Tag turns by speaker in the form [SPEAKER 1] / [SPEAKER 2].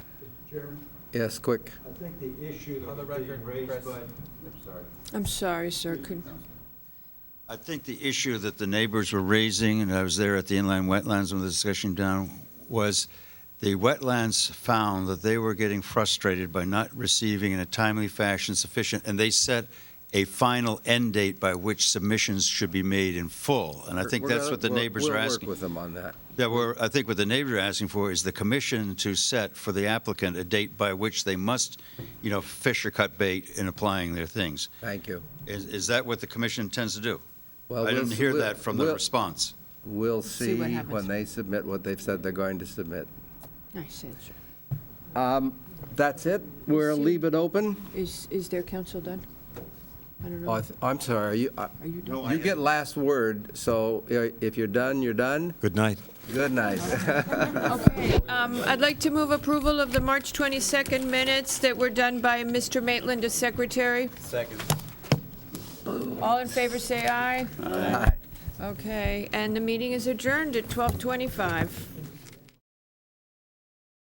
[SPEAKER 1] Chairman,
[SPEAKER 2] Yes, quick.
[SPEAKER 1] I think the issue
[SPEAKER 3] On
[SPEAKER 1] that
[SPEAKER 3] the
[SPEAKER 1] was being
[SPEAKER 3] record,
[SPEAKER 1] raised
[SPEAKER 3] Chris.
[SPEAKER 1] by,
[SPEAKER 4] I'm sorry, sir. Could,
[SPEAKER 5] I think the issue that the neighbors were raising, and I was there at the inland wetlands when the discussion down, was the wetlands found that they were getting frustrated by not receiving in a timely fashion sufficient, and they set a final end date by which submissions should be made in full. And I think
[SPEAKER 2] We're
[SPEAKER 5] that's
[SPEAKER 2] gonna-
[SPEAKER 5] what the
[SPEAKER 2] we'll-
[SPEAKER 5] neighbors are asking.
[SPEAKER 2] We'll work with them on that.
[SPEAKER 5] Yeah, we're, I think what the neighbors are asking for is the commission to set for the applicant a date by which they must, you know, fish or cut bait in applying their things.
[SPEAKER 2] Thank you.
[SPEAKER 5] Is, is that what the commission intends to do?
[SPEAKER 2] Well,
[SPEAKER 5] I
[SPEAKER 2] we'll
[SPEAKER 5] didn't
[SPEAKER 2] s-
[SPEAKER 5] hear
[SPEAKER 2] we'll-
[SPEAKER 5] that from the
[SPEAKER 2] we'll-
[SPEAKER 5] response.
[SPEAKER 2] We'll
[SPEAKER 4] See
[SPEAKER 2] see
[SPEAKER 4] what happens.
[SPEAKER 2] when they submit what they've said they're going to submit.
[SPEAKER 4] nice answer.
[SPEAKER 2] Um, That's it? We'll
[SPEAKER 4] see.
[SPEAKER 2] leave it open?
[SPEAKER 4] Is, is their counsel done? I don't know.
[SPEAKER 2] Oh, I
[SPEAKER 4] Are
[SPEAKER 2] th- I'm sorry, are you, uh,
[SPEAKER 4] you done?
[SPEAKER 2] you get last word, so uh, if you're done, you're done?
[SPEAKER 6] Good night.
[SPEAKER 2] Good night.
[SPEAKER 4] Okay. Um, I'd like to move approval of the March 22nd minutes that were done by Mr. Maitland as secretary.
[SPEAKER 3] Second.
[SPEAKER 4] All in favor, say aye.
[SPEAKER 2] Aye.
[SPEAKER 4] Okay, and the meeting is adjourned at 12:25.